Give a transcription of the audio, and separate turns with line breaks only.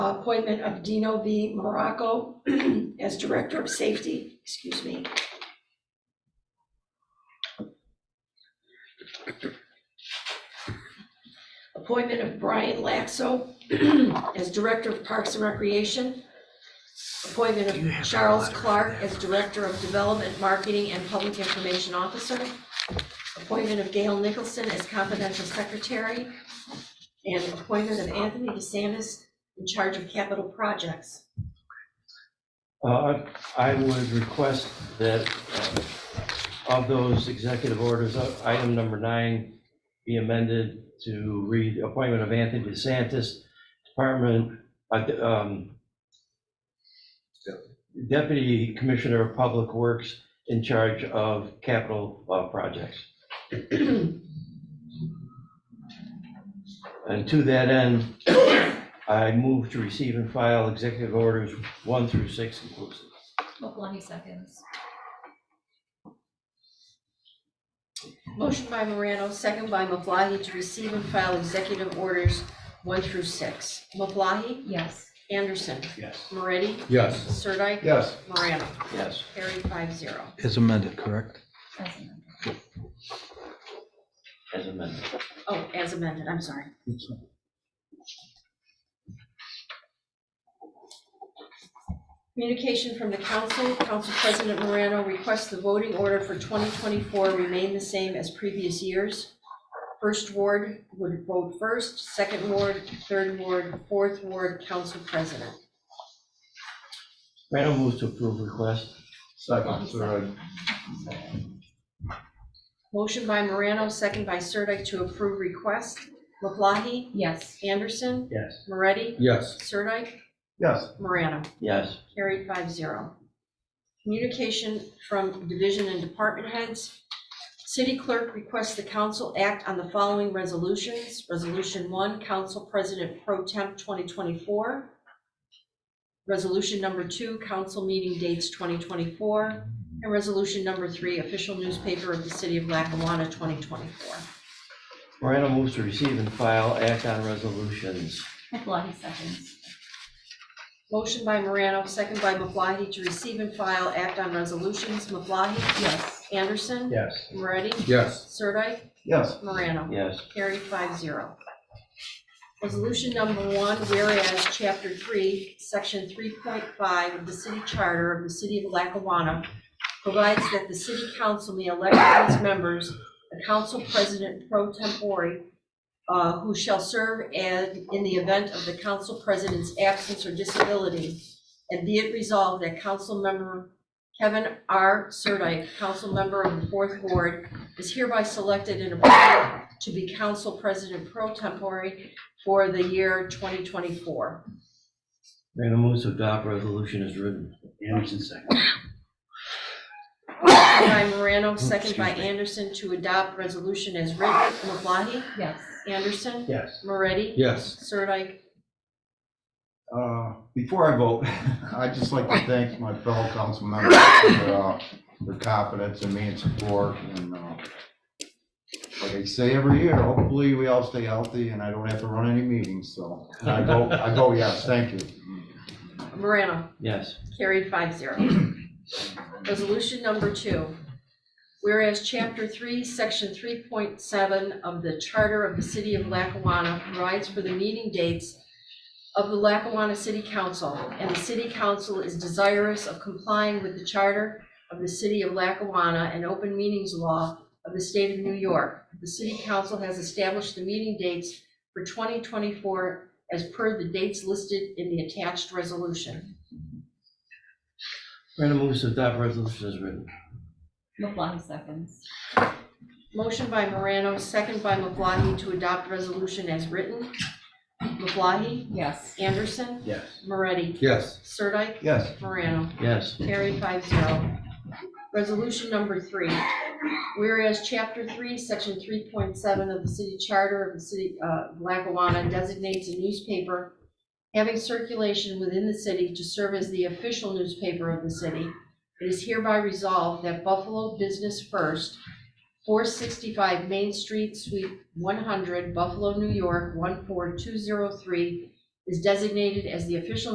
appointment of Dino V. Morocco as Director of Safety, excuse me. Appointment of Brian Laxo as Director of Parks and Recreation. Appointment
Do you
of
have a
Charles
letter for
Clark
that?
as Director of Development, Marketing, and Public Information Officer. Appointment of Gail Nicholson as Confidential Secretary. And appointment of Anthony DeSantis in charge of capital projects.
Uh, I would request that uh, of those executive orders, uh, item number nine be amended to read appointment of Anthony DeSantis, Department, uh, de- um, Deputy Commissioner of Public Works in charge of capital uh, projects. And to that end, I move to receive and file executive orders one through six inclusive.
Maflahe seconds.
Motion by Morano, second by Maflahe, to receive and file executive orders one through six. Maflahe?
Yes.
Anderson?
Yes.
Moretti?
Yes.
Sirdike?
Yes.
Morano?
Yes.
Carried five zero.
Is amended, correct?
as amended.
As amended.
Oh, as amended, I'm sorry. Communication from the council. Council President Morano requests the voting order for 2024 remain the same as previous years. First ward would vote first, second ward, third ward, fourth ward, council president.
Random moves to approve request.
Second, third.
Motion by Morano, second by Sirdike to approve request. LeBlancy,
Yes.
Anderson,
Yes.
Moretti,
Yes.
Sirdike,
Yes.
Morano.
Yes.
Carried five zero. Communication from division and department heads. City clerk requests the council act on the following resolutions. Resolution one, council president pro temp 2024. Resolution number two, council meeting dates 2024. And resolution number three, official newspaper of the city of Lackawanna 2024.
Morano moves to receive and file act on resolutions.
Maflahe seconds.
Motion by Morano, second by Maflahe, to receive and file act on resolutions. Maflahe?
Yes.
Anderson?
Yes.
Moretti?
Yes.
Sirdike?
Yes.
Morano.
Yes.
Carried five zero. Resolution number one, whereas chapter three, section three point five of the city charter of the city of Lackawanna provides that the city council may elect as members a council president pro tempore uh, who shall serve and in the event of the council president's absence or disability. And be it resolved that council member Kevin R. Sirdike, council member of the fourth ward, is hereby selected and appointed to be council president pro tempore for the year 2024.
Random moves to adopt resolution as written.
Anderson second.
Motion by Morano, second by Anderson to adopt resolution as written. Maflahe?
Yes.
Anderson?
Yes.
Moretti?
Yes.
Sirdike?
Uh, Before I vote, I'd just like to thank my fellow council members for uh, their confidence in me and support. And uh, Like I say every year, hopefully we all stay healthy and I don't have to run any meetings, so I go, I go, yes, thank you.
Morano?
Yes.
Carried five zero. Resolution number two. Whereas chapter three, section three point seven of the charter of the city of Lackawanna provides for the meeting dates of the Lackawanna City Council, and the city council is desirous of complying with the charter of the city of Lackawanna and open meetings law of the state of New York. The city council has established the meeting dates for twenty twenty-four as per the dates listed in the attached resolution.
Random moves to adopt resolution as written.
Maflahe seconds.
Motion by Morano, second by Maflahe to adopt resolution as written. Maflahe?
Yes.
Anderson?
Yes.
Moretti?
Yes.
Sirdike?
Yes.
Morano?
Yes.
Carried five zero. Resolution number three. Whereas chapter three, section three point seven of the city charter of the city uh, of Lackawanna designates a newspaper having circulation within the city to serve as the official newspaper of the city. It is hereby resolved that Buffalo Business First, four sixty-five Main Street, Suite one hundred, Buffalo, New York, one four two zero three, is designated as the official